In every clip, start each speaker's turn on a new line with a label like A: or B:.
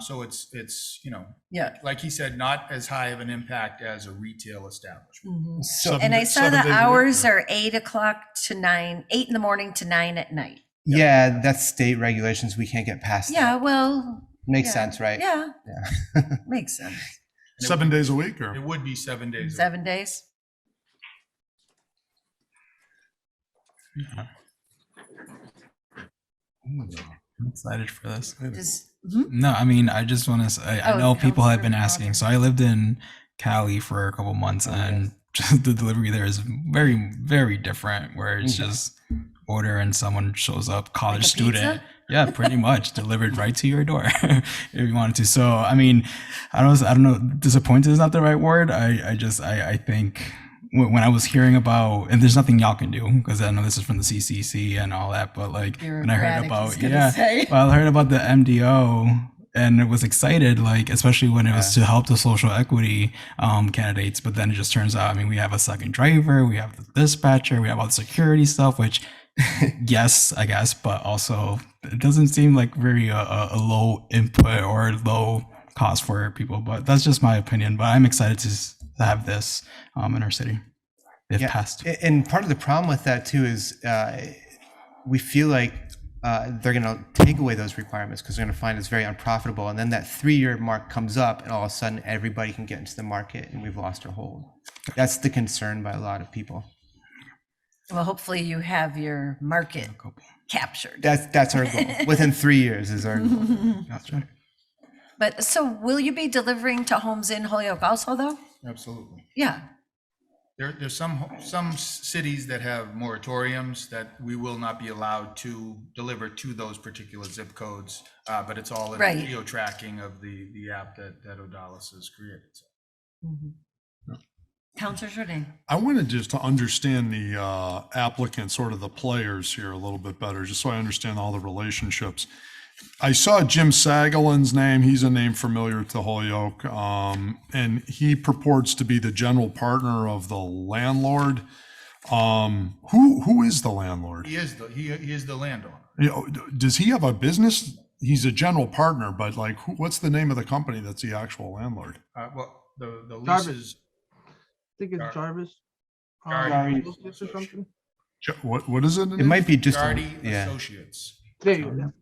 A: So it's, it's, you know,
B: Yeah.
A: like he said, not as high of an impact as a retail establishment.
C: Mm-hmm.
B: Mhm.
D: Seven-
B: And I saw
D: seven
B: the
D: days a week.
B: hours are eight o'clock to nine, eight in the morning to nine at night.
D: Yeah, that's state regulations. We can't get past.
B: Yeah,
D: that.
B: well,
D: makes
B: yeah,
D: sense, right?
B: yeah.
D: Yeah.
B: Makes sense.
A: And it
E: Seven
A: would-
E: days a week or?
A: It would be seven days. a week.
B: Seven days.
C: I'm excited for this.
B: Just, mhm.
C: No, I mean, I just want to say, I
B: Oh,
C: know people have been
B: Councilmember Rodgers.
C: asking. So I lived in Cali for a couple months,
D: Oh,
C: and just the delivery there is very, very different. Where it's
D: Mhm.
C: just order and someone shows up, college
B: Mm-hmm. Like a
C: student.
B: pizza?
C: Yeah, pretty much delivered right to your door if you wanted to. So I mean, I don't, I don't know. Disappointed is not the right word. I, I just, I, I think when, when I was hearing about, and there's nothing y'all can do because I know this is from the CCC and all that, but like when I heard
B: Bureaucratic, he's
C: about,
B: gonna
C: yeah,
B: say.
C: well, I heard about the MDO and it was excited, like especially when it was to help the social equity um, candidates. But then it just turns out, I mean, we have a second driver, we have the dispatcher, we have all the security stuff, which yes, I guess, but also it doesn't seem like very uh, a, a low input or low cost for people. But that's just my opinion. But I'm excited to s- have this um, in our city. They've
D: Yeah.
C: passed.
D: A- And part of the problem with that too is uh, we feel like uh, they're going to take away those requirements because they're going to find it's very unprofitable. And then that three-year mark comes up, and all of a sudden everybody can get into the market, and we've lost our hold. That's the concern by a lot of people.
B: Well, hopefully you have your market captured.
D: That's that's our goal. Within three years is our goal. That's right.
B: But so will you be delivering to homes in Holyoke also though?
A: Absolutely.
B: Yeah.
A: There, there's some, some s- cities that have moratoriums that we will not be allowed to deliver to those particular zip codes. Uh, but it's all in the
B: Right.
A: geo tracking of the, the app that, that Odalis has created. So
D: Mm-hmm.
B: Counselor Jordan.
E: I wanted just to understand the uh, applicant, sort of the players here a little bit better, just so I understand all the relationships. I saw Jim Sagalin's name. He's a name familiar to Holyoke. Um, and he purports to be the general partner of the landlord. Um, who, who is the landlord?
A: He is the, he, he is the landowner.
E: You know, d- Does he have a business? He's a general partner, but like, who, what's the name of the company that's the actual landlord?
A: Uh, well, the, the lease
F: Jarvis.
A: is
F: think it's
A: Gar-
F: Jarvis. um,
A: Jarvis.
F: Associates Or something.
E: Jo- What, what is it?
D: It might be just a-
A: Gardy
D: yeah.
A: Associates.
F: There you go.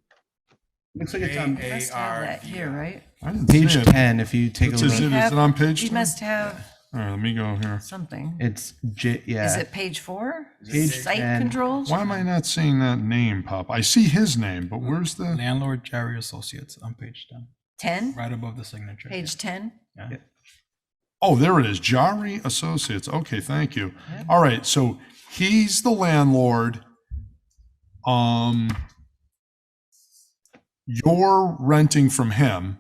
D: Looks like it's on
B: Must have that Here,
A: A-A-R-D-I.
B: right?
E: I didn't see
D: page
E: it.
D: ten. If you take
E: It
D: a
E: says
D: look,
E: it- Is
D: it,
B: Have-
E: it on page?
B: He
E: 10?
B: must
D: Mm-hmm.
B: have
E: All right, let me go here.
B: something.
D: it's J, yeah.
B: Is it page four?
D: Page
B: Site
D: 10.
B: controls?
E: Why am I not seeing that name pop? I see his name, but where's the?
C: Landlord Jerry Associates on page 10,
B: Ten?
C: right above the signature.
B: Page ten?
E: Oh, there it is. Jari Associates. Okay, thank you. All right, so he's the landlord. Um, you're renting from him,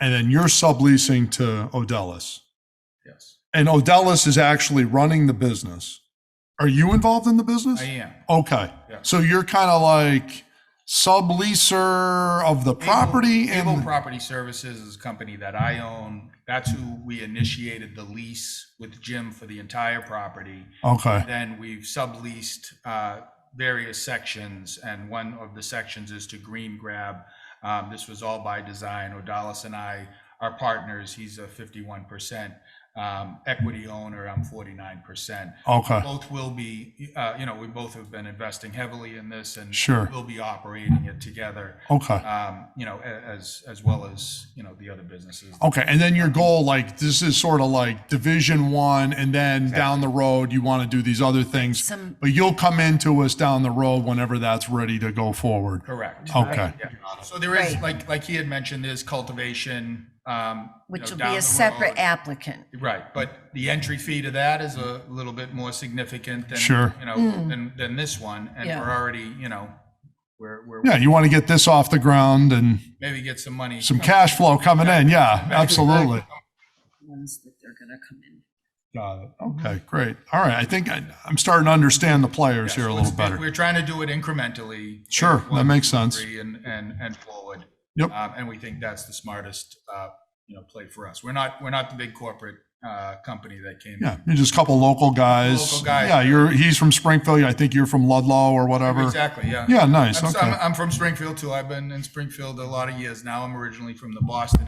E: and then you're subleasing to Odellis.
A: Yes,
E: And Odellis is actually running the business. Are you involved in the business?
A: I am.
E: Okay,
A: Yeah.
E: so you're kind of like subleaser of the property
A: Able- Able
E: and.
A: Property Services is a company that I own. That's who we initiated the lease with Jim for the entire property.
E: Okay.
A: Then we've subleased uh, various sections, and one of the sections is to Green Grab. Um, This was all by design. Odalis and I are partners. He's a 51% um, equity owner. I'm 49%.
E: Okay.
A: Both will be, uh, you know, we both have been investing heavily in this and
E: Sure.
A: we'll be operating it together.
E: Okay.
A: um, you know, a- as, as well as, you know, the other businesses.
B: Oh.
E: Okay. And then your goal, like this is sort of like division one, and then down the road, you want to do these other things.
B: Some,
E: But you'll come into us down the road whenever that's ready to go forward.
A: Correct.
E: Okay.
A: Yeah. So there is,
B: Oh. Right.
A: like, like he had mentioned, there's cultivation, um. you know,
B: which will
A: down
B: be
A: the
B: a separate
A: road.
B: applicant.
A: Right, but the entry fee to that is a little bit more significant than.
E: Sure.
A: You know, than, than this one, and
B: Hmm. Yeah.
A: we're already, you know, we're, we're,
E: Yeah. You want to get this off the ground and
A: maybe get some money.
E: some cash flow coming in. Yeah. Absolutely.
B: Ones that they're gonna come in.
E: Got it. Okay. Great. All right. I think I, I'm starting to understand the players here a
A: So
E: little
A: it's-
E: better.
A: We're trying to do it incrementally.
E: Sure,
A: phase
E: that
A: one,
E: makes
A: two,
E: sense.
A: three, And, and, and forward.
E: Yep.
A: Um, And we think that's the smartest uh, you know, play for us. We're not, we're not the big corporate, uh, company that came.
E: Yeah, you're just a couple local guys.
A: Local guys.
E: Yeah, you're he's from Springfield. I think you're from Ludlow or whatever.
A: Exactly, yeah.
E: Yeah, nice.
A: I'm,
E: okay.
A: I'm, I'm from Springfield too. I've been in Springfield a lot of years now. I'm originally from the Boston